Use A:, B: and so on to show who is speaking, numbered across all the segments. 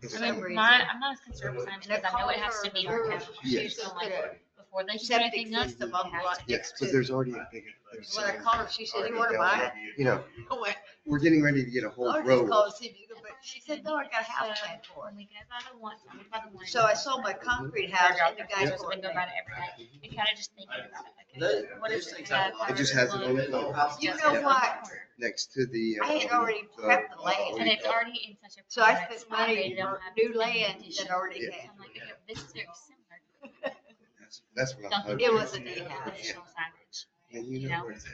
A: for
B: I
A: some
B: mean,
A: reason.
B: my, I'm not as concerned with
C: And
B: signs because I know it has to be
A: Or
B: archived
A: she
D: Yes.
A: used to
B: So,
A: put
B: like,
A: a
B: before they put
A: septic
B: anything else.
A: system on the lot
D: Yes,
A: next
D: but
A: to.
D: there's already a big. there's
A: When I
D: a-
A: called her, she said, you wanna buy it?
D: You know,
A: I went,
D: we're getting ready to get a whole
A: Oh, I'll just
D: row.
A: call and see if you can, but she said, no, I got a house plan for
B: When we go by the one, we go by the one.
A: it. So I sold my concrete house and the
B: We're
A: guy
B: supposed to
A: bought
B: go by it every day. And kind of just thinking about it, like,
C: Those-
B: what
C: those
B: is
C: things
B: it?
C: have a lot
D: It just has it on it, like,
A: You
B: Just
A: know
B: on the
A: what?
B: corner.
D: next to the.
A: I had
D: um,
A: already prepped the land.
D: uh,
B: And it's already in such a.
A: So I
B: private
A: spent
B: spot, they
A: money
B: don't
A: on
B: have
A: new
B: to
A: land
B: condition.
A: that I already
D: Yeah.
A: had.
B: I'm like, okay, this is very similar.
D: That's- That's what I'm
B: Dunkin'
D: hoping.
A: It was a
B: Donuts
A: day
B: has
A: house.
B: additional signage.
D: And you
B: you
D: know
B: know?
D: where it's at.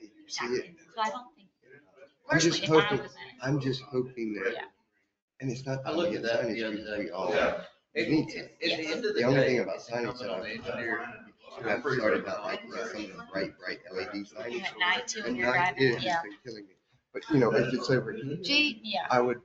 D: You See
B: Exactly.
D: it?
B: So I don't think.
D: I'm just
B: personally, if I
D: hoping-
B: was in-
D: I'm just hoping
B: Yeah.
D: that, and it's not.
C: I looked
D: only
C: at that
D: signage,
C: the other
D: we-
C: day.
D: We all.
C: Yeah. At,
D: Me
C: at
D: too.
C: the end of the
D: The only
C: day,
D: thing about
C: it's
D: signage
C: incumbent
D: that
C: on
D: I'm
C: the engineer.
D: I've started about like
A: Yeah.
D: some of the bright, bright LED
B: You
D: signage.
B: know, At night too, when
D: And
B: you're
D: night, it
B: driving,
D: has
B: yeah,
D: been killing me. But you know, if it's over, here,
A: Gee,
B: yeah.
D: I would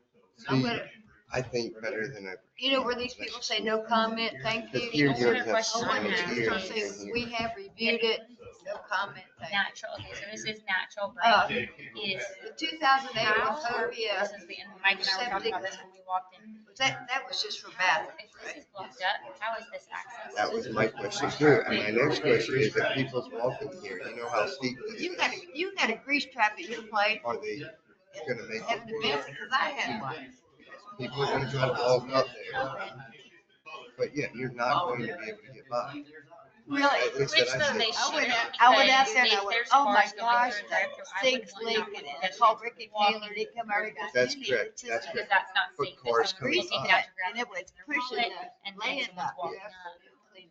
A: I'm
D: be,
A: gonna,
D: I think, better than over.
A: you know where these people say no comment, thank
D: Because
A: you?
D: here you
B: Older
D: don't have
B: question
A: Oh,
B: I
A: one
D: signage
B: have.
D: here.
A: people
D: and
A: say,
D: here.
A: we have reviewed it, no comment, thank you.
B: Natural, okay, so this is natural
A: Uh,
B: bright is
A: The two thousand eight
B: house,
A: Autoria,
B: this is the, and Mike and I were talking about this when we walked in.
A: that, that was just for bathrooms,
B: If this is blocked up, how is this access?
D: That was my question too. And my next question is if people's walking here, you know how steep it
A: You
D: is.
A: got, a- you got a grease trap at your place,
D: Are they gonna make it?
A: having to miss it, cause I had one.
D: People are gonna try to walk up there,
B: Okay.
D: but yet you're not going to be able to get by.
A: Really?
D: At least
B: Which
D: that I
B: though
D: said.
B: they
A: I went
B: should.
A: out- I went out there and I
B: because
A: went,
B: there's
A: "Oh my
B: cars going
A: gosh,
B: through and through. I
A: Things
B: would want not
A: leaking, and I
B: to
A: called Ricky
B: walk
A: Taylor, he come over, and got
D: That's
A: me.
D: correct.
A: Just
D: That's
A: like
B: Because that's not
D: Put
B: safe. because
D: cars
B: someone's
D: coming up.
B: looking at your
A: And it was pushing
B: wallet
A: the
B: And then
A: land
B: someone's
A: up.
B: walking up.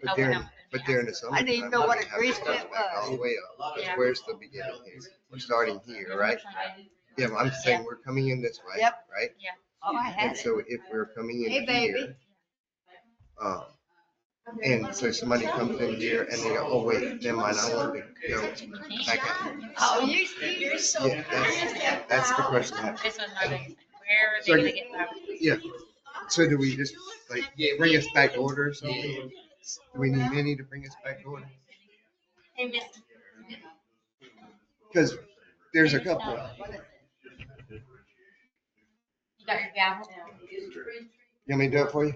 D: But they're, in- but they're in the summertime.
A: didn't even know what a
D: they have to
A: grease
D: go
A: pit
D: back All the way up. Because where's the beginning here? We're starting here, right? Yeah, well, I'm saying we're coming in this way,
A: Yep.
D: right?
A: Oh, I
D: And
A: had it.
D: so if we're coming in
A: Hey,
D: here,
A: baby.
D: um, and so somebody comes in here and they go, oh, wait, never mind, I want to go back out. here."
A: Oh, you, you're so.
D: Yeah, that's, that's the question. I have.
B: This was my biggest, thing. where are they
D: So-
B: gonna get that?
D: Yeah. So do we just like bring us back to order or something? Do we need any to bring us back to order?
B: They missed-
D: Because there's a
B: they missed
D: couple.
B: out on what is it? You got your gavel?
D: You want me to do it for you?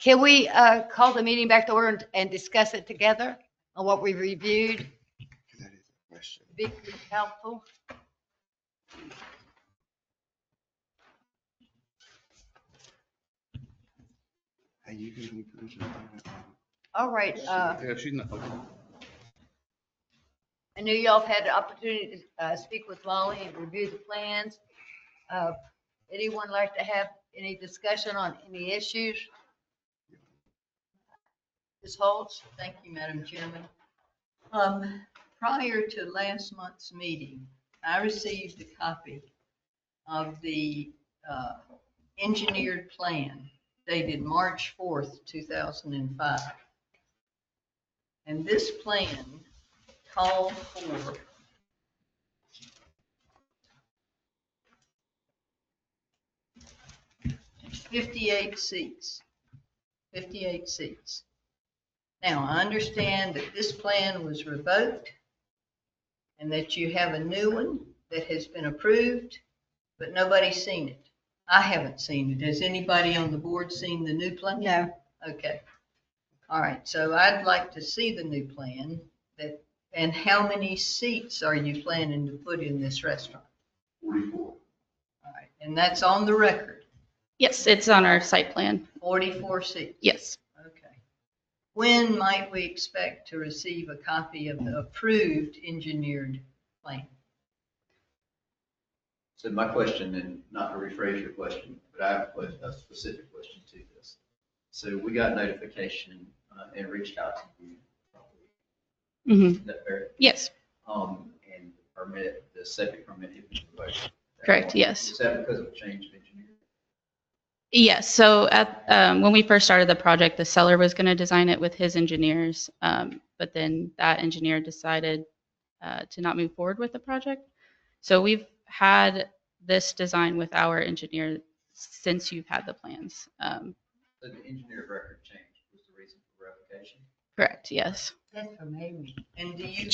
E: Can we uh, call the meeting back to order and- and discuss it together on what we reviewed?
D: That is a question.
E: Be helpful.
D: Are you giving me permission?
E: All right. uh,
F: Yeah, she's not, okay.
E: I knew y'all have had the opportunity to uh, speak with Molly and review the plans. Uh, Anyone like to have any discussion on any issues? Ms. Holtz?
G: Thank you, Madam Chairman. Um, Prior to last month's meeting, I received a copy of the uh, engineered plan dated March 4th, 2005. And this plan called for fifty-eight seats, fifty-eight seats. Now, I understand that this plan was revoked and that you have a new one that has been approved, but nobody's seen it. I haven't seen it. Has anybody on the board seen the new plan?
E: No.
G: Okay. All right, so I'd like to see the new plan that, and how many seats are you planning to put in this restaurant? Forty-four. All right, and that's on the record,
H: Yes, it's on our site plan.
G: forty-four seats.
H: Yes.
G: Okay. When might we expect to receive a copy of the approved engineered plan?
C: So my question, and not to rephrase your question, but I have a a specific question to this. So we got notification uh, and reached out to you.
H: hmm
C: Is that fair?
H: Yes,
C: Um, and the permit, the septic permit had been revoked.
H: Correct, yes.
C: Is that because of change of engineer?
H: yes. So at, um, when we first started the project, the seller was going to design it with his engineers. Um, but then that engineer decided, uh, to not move forward with the project. So we've had this design with our engineer since you've had the plans. Um,
C: So the engineer of record change was the reason for revocation?
H: correct, yes.
G: That's amazing. And do you